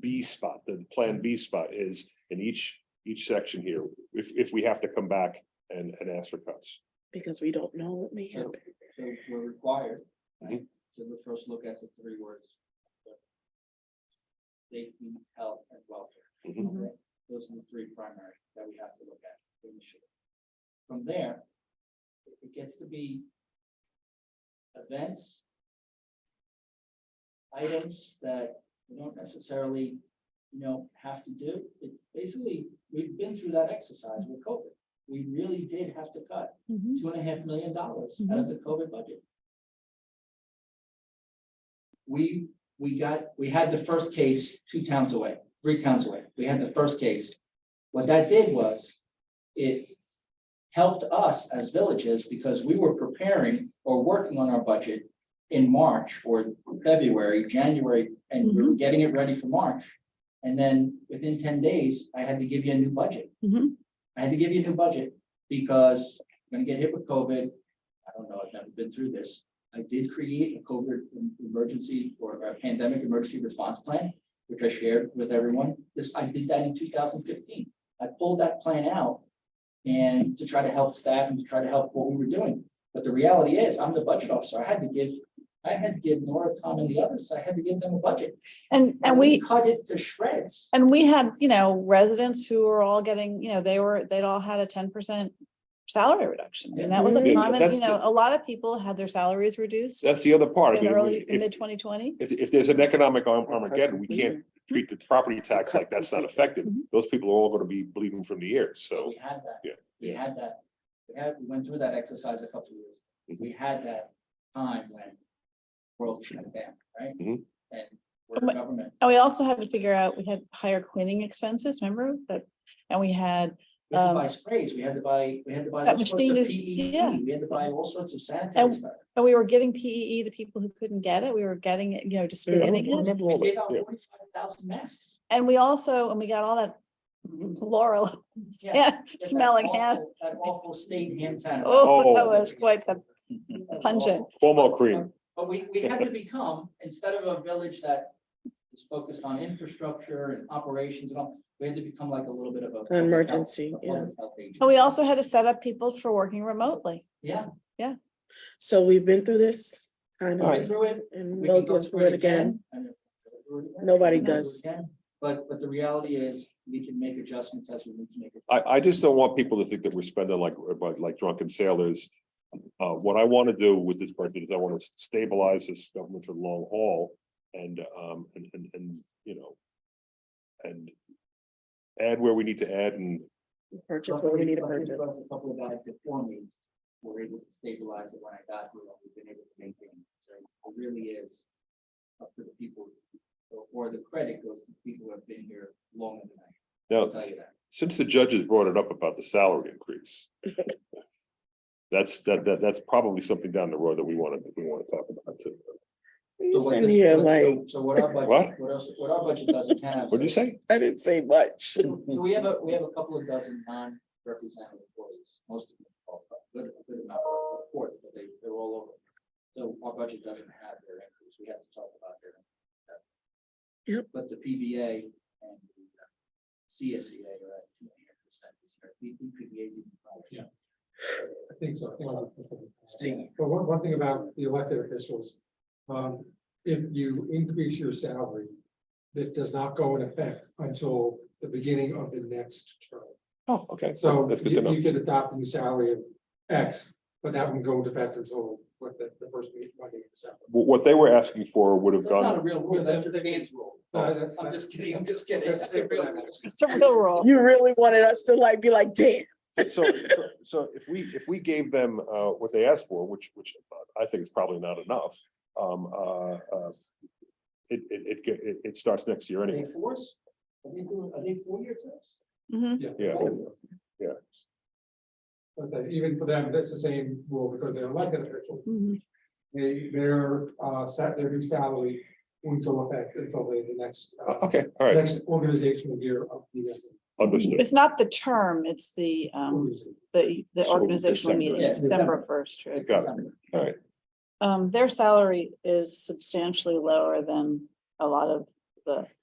B spot, the plan B spot is in each, each section here, if, if we have to come back and, and ask for cuts. because we don't know what may Sure. happen. So we're required. Right. To the first look at the three words. but Safety, health and welfare. Mhm. Those are the three primary that we have to look at initially. From there, it- it gets to be. Events. Items that we don't necessarily, you know, have to do. It basically, we've been through that exercise with COVID. We really did have to cut Mm-hmm. two and a half million dollars out of the COVID budget. We, we got, we had the first case two towns away, three towns away. We had the first case. What that did was it helped us as villages because we were preparing or working on our budget in March or February, January, and we were getting it ready for March. And then within ten days, I had to give you a new budget. Mhm. I had to give you a new budget because I'm gonna get hit with COVID. I don't know, I've never been through this. I did create a COVID em- emergency or a pandemic emergency response plan, which I shared with everyone. This, I did that in two thousand fifteen. I pulled that plan out and to try to help staff and to try to help what we were doing. But the reality is, I'm the budget officer. I had to give, I had to give Nora, Tom and the others, I had to give them a budget. And, and we, Cut it to shreds. and we had, you know, residents who were all getting, you know, they were, they'd all had a ten percent salary reduction. And that was Yeah, a common, Mm-hmm. that's you know, the- a lot of people had their salaries reduced That's the other part. I in mean, early, if- mid twenty twenty. If, if there's an economic Arm- Armageddon, we can't treat the property tax like that's not affected. Mm-hmm. Those people are all gonna be bleeding from the ears, so. We had that. Yeah. We had that. We had, we went through that exercise a couple of years. Mm-hmm. ago. We had that time when world shut down, right? Mhm. And we're Um, the government. And we also had to figure out, we had higher cleaning expenses, remember that? And we had, We had to Um, buy sprays, we had to buy, we had to buy that all sorts of machine is- yeah. PET, we had to buy all sorts of sanitary And- stuff. and we were giving PEE to people who couldn't get it. We were getting it, you know, distributing it. Remember We all that, gave out yeah. forty-five thousand masks. And we also, and we got all that Laurel Yeah. That smelling awful- hand That awful state hand sanitizer. Oh, that was quite the That was pungent. awful. Cuomo cream. But we, we had to become, instead of a village that is focused on infrastructure and operations and all, we had to become like a little bit of a. public health- Emergency, a yeah. public health agency. And we also had to set up people for working remotely. Yeah, So we've been through this kind we went of, through it. and we we'll can go go through it again. and we'll go through it again. Nobody We'll go through it does. again. But, but the reality is, we can make adjustments as we need to make. it. I, I just don't want people to think that we're spending like, like- like drunken sailors. Uh, what I want to do with this budget is I want to stabilize this government for the long haul and, um, and, and, and, you know, and add where we need to add and, Purchase what we need to purchase. There was a couple of guys before me who were able to stabilize it when I got here, and we've been able to maintain it, so it really is up to the people, or- or the credit goes to the people who have been here longer than I, now, I'll tell you that. since the judges brought it up about the salary increase. That's, that, that, that's probably something down the road that we want to, we want to talk about too. You So what sitting this- here what- like, So what our budget, What? what else, what our budget doesn't have. What'd you say? I didn't say much. So so we have a, we have a couple of dozen non-represented employees, most of them are good, good enough for court, but they, they're all over. So our budget doesn't have their increase, we have to talk about their. uh, Yep. But the PBA and the uh, CSEA are at two and a half percent this year, P- PBA is even higher. I think so. I think so. Steve. But one, one thing about the elected officials, um, if you increase your salary, that does not go in effect until the beginning of the next term. Oh, okay. So That's good to you, know. you could adopt a new salary of X, but that wouldn't go into effect until what the, the first meeting, Monday in December. What, what they were asking for would have That's not gone, a real rule, that's the man's rule. Uh, that's- I'm just kidding, I'm just kidding. That's- That's a real rule. It's a real rule. You really wanted us to like, be like, damn. so, so- so if we, if we gave them, uh, what they asked for, which, which I think is probably not enough, um, uh, uh. It, it, it, get- it, it starts next year Are they anyway, force? Are they doing, are they four-year terms? Mhm. Mm-hmm. yeah, Yeah. But that even for them, that's the same rule because they're elected officials. Mm-hmm. Mhm. They, their, uh, set, their new salary won't go effect until the, the next. uh, Uh, okay, all right, next organizational year of the. uh, understood. It's not the term, it's the, um, organization. the, the So organizational meeting, December. It's December first. right? Got it. All right. Um, their salary is substantially lower than a lot of the